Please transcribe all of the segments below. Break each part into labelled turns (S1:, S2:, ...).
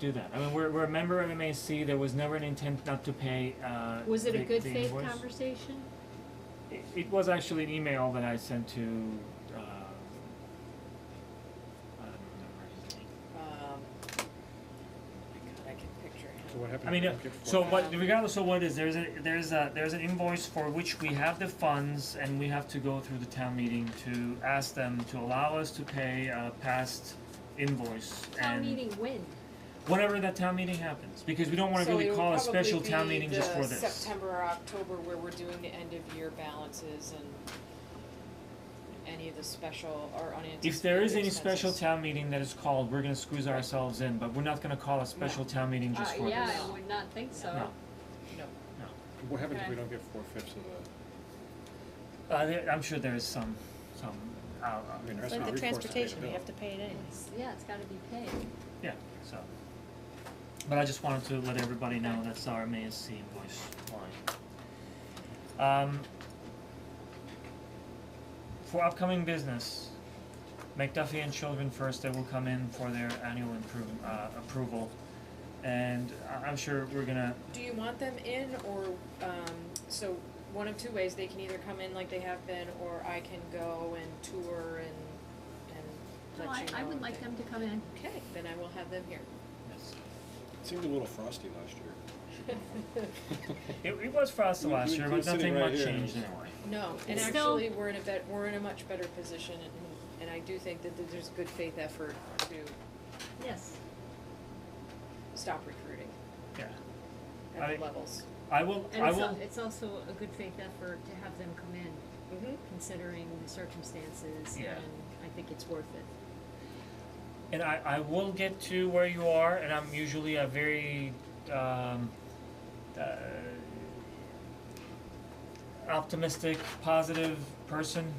S1: do that. I mean, we're, we're a member of MAC, there was never an intent not to pay, uh,
S2: Was it a
S1: the-
S2: good
S1: the
S2: faith
S1: invoice.
S2: conversation?
S1: It, it was actually an email that I sent to, uh, I don't remember his name.
S3: Um, oh my God, I can picture
S4: So
S3: him.
S4: what happened?
S1: I mean,
S4: to
S1: uh,
S4: Rocket Force?
S1: so what, regardless of what it is, there's a, there's a, there's an invoice for which we have the funds and we have to go through the town meeting to ask them to allow us to pay a past invoice
S2: Town
S1: and
S2: meeting when?
S1: whenever that town meeting happens, because we don't wanna really call a special town meeting just for
S3: So it would
S1: this.
S3: probably be the September or October where we're doing the end of year balances and any of the special or unanticipated
S1: If there is any special
S3: expenses.
S1: town meeting that is called, we're gonna squeeze ourselves in, but we're not gonna call a special town meeting just for
S2: Uh,
S1: this.
S2: yeah, I would not think so.
S1: No.
S3: No,
S4: What happens if we
S2: Okay.
S4: don't get four fifths of the,
S1: Uh, there, I'm sure there is some, some, uh, out,
S4: I mean, the
S5: It's
S4: rest of
S5: like
S4: the recourse
S5: the
S4: to pay the
S5: transportation, we
S4: bill.
S5: have to pay it anyways.
S2: It's, yeah, it's gotta be paid.
S1: Yeah, so. But I just wanted to let everybody know that's our MASC invoice line. Um. For upcoming business, McDuffie and Children First, they will come in for their annual improve, uh, approval. And I, I'm sure we're gonna,
S3: do you want them in or, um, so one of two ways, they can either come in like they have been or I can go and tour and, and
S2: No,
S3: let
S2: I,
S3: you know.
S2: I would
S3: and
S2: like
S3: thing.
S2: them to come in.
S3: Okay, then I will have them here.
S1: yes.
S4: It Seemed a little frosty last year.
S1: It, it was for us
S4: You-
S1: last
S4: you
S1: year,
S4: include
S1: but
S4: sitting
S1: nothing
S4: right
S1: much
S4: here.
S1: changed anyway.
S3: No, and
S2: It's
S3: actually, we're in a bet, we're in a much better position, and, and I do think that there's good faith effort to
S2: Yes.
S3: stop recruiting
S1: I
S3: at
S1: think-
S3: the levels.
S1: I will,
S2: And
S1: I
S2: it's, al-
S1: will,
S2: it's also a good faith effort to have them come in,
S3: Mm-hmm.
S2: considering the circumstances,
S1: Yeah.
S2: and I think it's worth it.
S1: and I, I will get to where you are, and I'm usually a very um, uh, optimistic, positive person.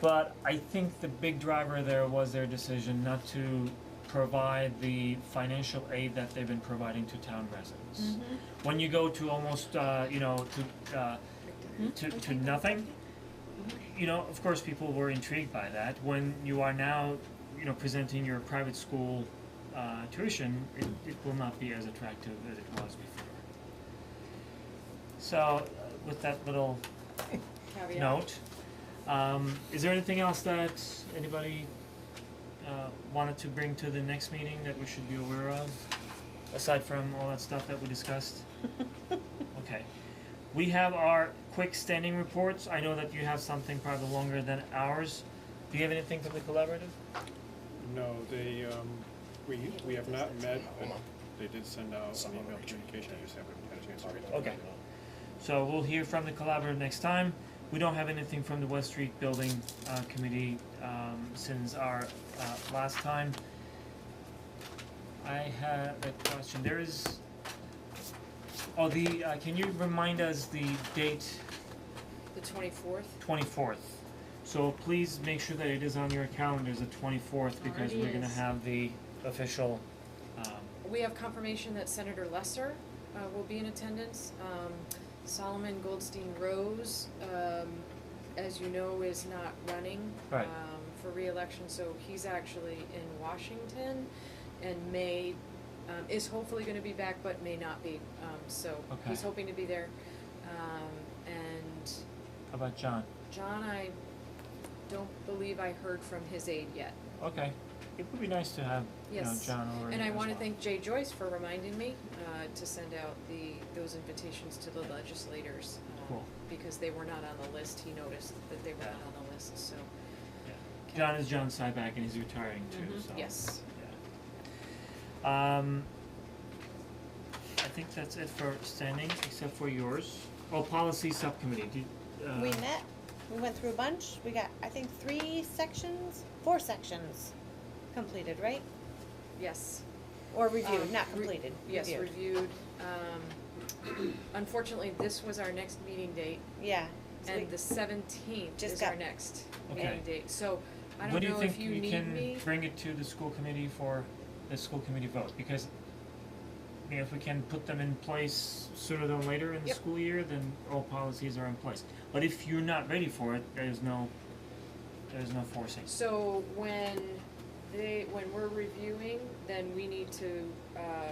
S1: But I think the big driver there was their decision not to provide the financial aid that they've been providing to town residents.
S2: Mm-hmm.
S1: When you go to almost, uh, you know, to uh, to to nothing, you know, of course, people were intrigued by that. When you are now, you know, presenting your private school uh, tuition, it, it will not be as attractive as it was before. So, uh, with that little
S3: Caveat.
S1: note, um, is there anything else that anybody uh, wanted to bring to the next meeting that we should be aware of, aside from all that stuff that we discussed? Okay. We have our quick standing reports. I know that you have something probably longer than ours. Do you have anything from the collaborative?
S4: No, they, um, we, we have not met, but they did send out an email communication, I just haven't had a chance to read it.
S1: Okay. So we'll hear from the collaborative next time. We don't have anything from the West Street Building uh committee um since our uh last time. I have a question, there is, oh, the, uh can you remind us the date
S3: The twenty-fourth,
S1: twenty-fourth? So please make sure that it is on your calendars, the twenty-fourth, because
S2: Already
S1: we're gonna
S2: is.
S1: have the official um
S3: we have confirmation that Senator Lesser, uh, will be in attendance. Um, Solomon Goldstein Rose, um, as you know, is not running, um,
S1: Right.
S3: for reelection, so he's actually in Washington and may, um, is hopefully gonna be back, but may not be, um, so he's
S1: Okay.
S3: hoping to be there. Um, and
S1: how about John?
S3: John, I don't believe I heard from his aide yet.
S1: Okay, it would be nice to have, you know,
S3: Yes.
S1: John over
S3: And I
S1: as
S3: wanna
S1: well.
S3: thank Jay Joyce for reminding me, uh, to send out the, those invitations to the legislators. um,
S1: Cool.
S3: Because they were not on the list, he noticed that they were not on the list, so,
S1: Yeah. John is John Syback and he's retiring too, so.
S3: Mm-hmm. yes.
S1: yeah. Um, I think that's it for standing, except for yours. Oh, policy subcommittee, did, uh,
S5: We met, we went through a bunch, we got, I think, three sections, four sections completed, right?
S3: Yes.
S5: Or reviewed,
S3: Um,
S5: not
S3: re-
S5: completed,
S3: Yes,
S5: reviewed.
S3: reviewed, um, unfortunately, this was our next meeting date,
S5: Yeah, so we,
S3: and the seventeenth
S5: Just
S3: is our
S5: got-
S3: next
S1: Okay.
S3: meeting date, so I
S1: when
S3: don't
S1: do you
S3: know if
S1: think
S3: you
S1: we
S3: need me.
S1: can bring it to the school committee for the school committee vote? Because, you know, if we can put them in place sooner than later in the
S3: Yep.
S1: school year, then all policies are in place. But if you're not ready for it, there's no, there's no forcing.
S3: So when they, when we're reviewing, then we need to, uh,